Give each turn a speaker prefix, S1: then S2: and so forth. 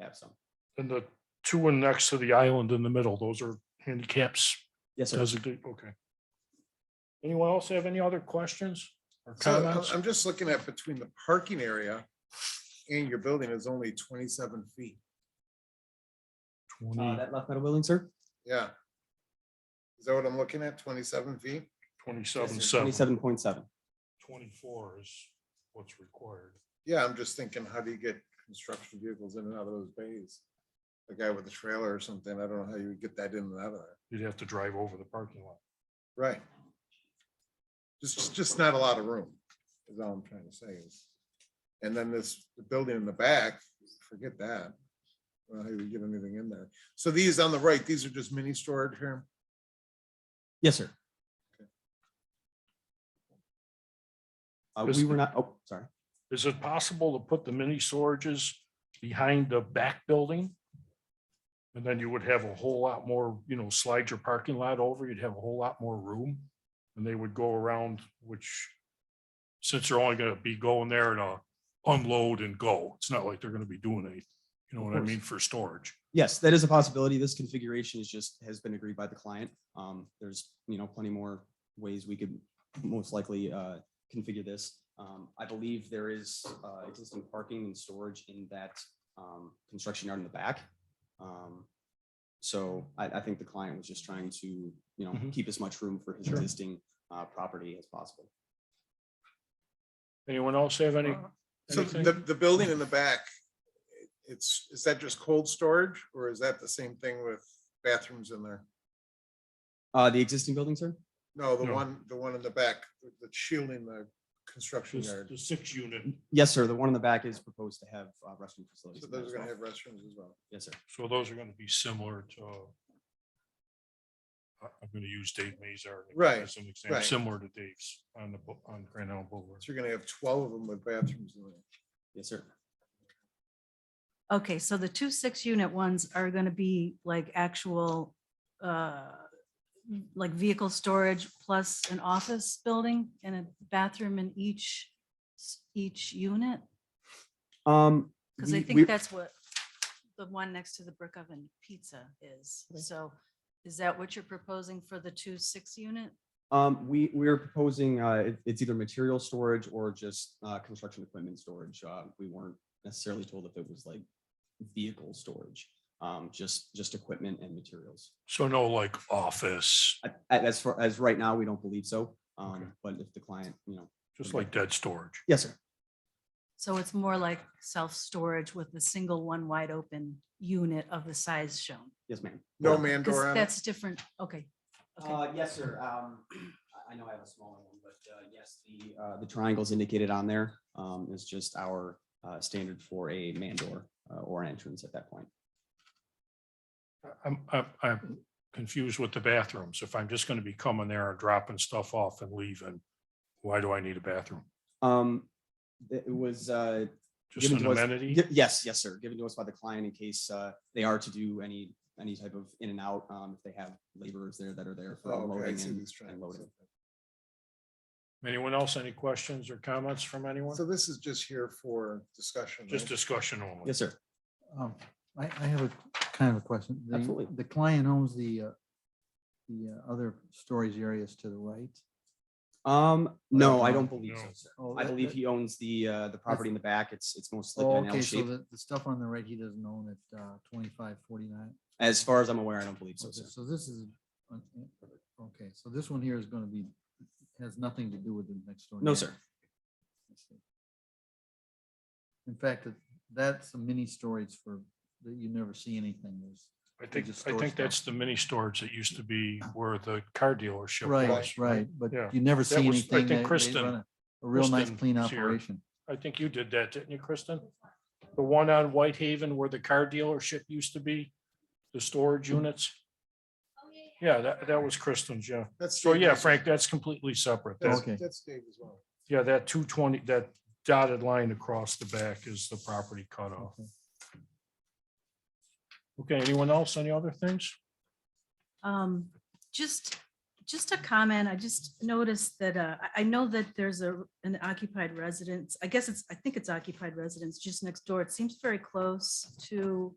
S1: have some.
S2: And the two one next to the island in the middle, those are handicaps
S1: Yes, sir.
S2: designate, okay. Anyone else have any other questions or
S1: uh,
S3: So I'm-
S2: comments?
S3: I'm just looking at between the parking area and your building is only twenty-seven feet.
S1: Uh,
S2: 20
S1: that left metal building, sir?
S3: Yeah. Is that what I'm looking at? Twenty-seven feet?
S2: Twenty-seven, seven,
S1: Twenty-seven point seven.
S2: twenty-four is what's required.
S3: Yeah, I'm just thinking, how do you get construction vehicles in and out of those bays? The guy with the trailer or something, I don't know how you would get that in and out of there.
S2: You'd have to drive over the parking lot.
S3: Right. Just, just not a lot of room, is all I'm trying to say. is- And then this building in the back, forget that. I don't know How you would get anything in there? So these on the right, these are just mini storage here?
S1: Yes, sir. Uh,
S2: Chris-
S1: we were not, oh, sorry.
S2: Is it possible to put the mini storages behind the back building? And then you would have a whole lot more, you know, slide your parking lot over, you'd have a whole lot more room. And they would go around, which since they're only gonna be going there to unload and go, it's not like they're gonna be doing any, you know what I
S1: course.
S2: mean, for storage.
S1: Yes, that is a possibility. This configuration is just, has been agreed by the client. Um, there's, you know, plenty more ways we could most likely, uh, configure this. Um, I believe there is, uh, existing parking and storage in that, um, construction yard in the back. Um, so I, I think the client was just trying to, you know,
S2: Mhm.
S1: keep as much room for his
S2: Sure.
S1: existing, uh, property as possible.
S2: Anyone else have any?
S3: Uh, So
S2: anything?
S3: the, the building in the back, it's, is that just cold storage or is that the same thing with bathrooms in there?
S1: Uh, the existing building, sir?
S3: No, the
S2: No.
S3: one, the one in the back, the shielding the construction
S2: The
S3: yard.
S2: the six unit,
S1: Yes, sir. The one in the back is proposed to have uh, restroom facilities.
S3: So
S1: in there
S3: those
S1: as
S3: are gonna
S1: well.
S3: have restrooms as well.
S1: Yes, sir.
S2: so those are gonna be similar to. I- I'm gonna use Dave Mazar.
S3: Right,
S2: As an example,
S3: right.
S2: similar to Dave's on the, bu- on Grand Island Boulevard.
S3: So you're gonna have twelve of them with bathrooms in there.
S1: Yes, sir.
S4: Okay, so the two six unit ones are gonna be like actual, uh, like vehicle storage plus an office building and a bathroom in each, s- each unit?
S1: Um.
S4: Because I
S1: we- we-
S4: think that's what the one next to the brick oven pizza is. So is that what you're proposing for the two six unit?
S1: Um, we, we're proposing, uh, it- it's either material storage or just, uh, construction equipment storage. Uh, we weren't necessarily told if it was like vehicle storage, um, just, just equipment and materials.
S2: So no like office,
S1: I- I- As far as right now, we don't believe so.
S2: Okay.
S1: Um, but if the client, you know,
S2: just like dead storage.
S1: yes, sir.
S4: So it's more like self-storage with the single one wide open unit of the size shown.
S1: Yes, ma'am.
S3: No man door
S4: Because
S3: on it.
S4: that's different, okay. okay.
S1: Uh, yes, sir. Um, I, I know I have a smaller one, but, uh, yes, the, uh, the triangles indicated on there, um, is just our, uh, standard for a man door, uh, or entrance at that point.
S2: I'm, I'm, I'm confused with the bathrooms. If I'm just gonna be coming there and dropping stuff off and leaving, why do I need a bathroom?
S1: Um, it was, uh,
S2: Just
S1: Given
S2: an
S1: to us-
S2: amenity?
S1: gi- yes, yes, sir, given to us by the client in case, uh, they are to do any, any type of in and out, um, if they have laborers there that are there for
S3: Oh, okay, I
S1: unloading
S3: see
S1: and
S3: these
S1: and
S3: triangles.
S1: loading.
S2: Anyone else? Any questions or comments from anyone?
S3: So this is just here for discussion.
S2: Just
S3: right?
S2: discussion only.
S1: Yes, sir.
S5: Um, I, I have a kind of a question. The-
S1: Absolutely.
S5: The client owns the, uh, the uh, other storage areas to the right.
S1: Um, no, I
S5: no,
S1: don't believe so,
S2: no.
S1: sir.
S5: Oh,
S1: I
S5: that-
S1: believe
S5: that-
S1: he owns the, uh, the property in the back. It's, it's mostly
S5: Oh,
S1: an L
S5: okay, so
S1: shape.
S5: the, the stuff on the right, he doesn't own at, uh, twenty-five forty-nine.
S1: As far as I'm aware, I don't believe so,
S5: Okay,
S1: sir.
S5: So this is, uh, uh, okay, so this one here is gonna be, has nothing to do with the next door.
S1: No,
S5: neighbor.
S1: sir.
S5: I see. In fact, it- that's a mini storage for, that you never see anything. There's,
S2: I think,
S5: just
S2: I
S5: store
S2: think
S5: stuff.
S2: that's the mini storage that used to be where the car dealership was.
S5: right, right, but
S2: Yeah.
S5: you never see
S2: was- I
S5: anything.
S2: think
S5: They- they
S2: Kristen-
S5: run A a real nice
S2: Kristen
S5: clean
S2: was here.
S5: operation.
S2: I think you did that, didn't you, Kristen? The one on Whitehaven where the car dealership used to be, the storage units? Yeah, that, that was Kristen's, yeah.
S3: That's
S2: So
S3: Dave
S2: yeah,
S3: Mazur.
S2: Frank, that's completely separate. That-
S3: That's,
S5: Okay.
S3: that's Dave as well.
S2: yeah, that two twenty, that dotted line across the back is the property cutoff.
S5: Okay.
S2: Okay, anyone else? Any other things?
S4: Um, just, just a comment. I just noticed that, uh, I, I know that there's a, an occupied residence. I guess it's, I think it's occupied residence just next door. It seems very close to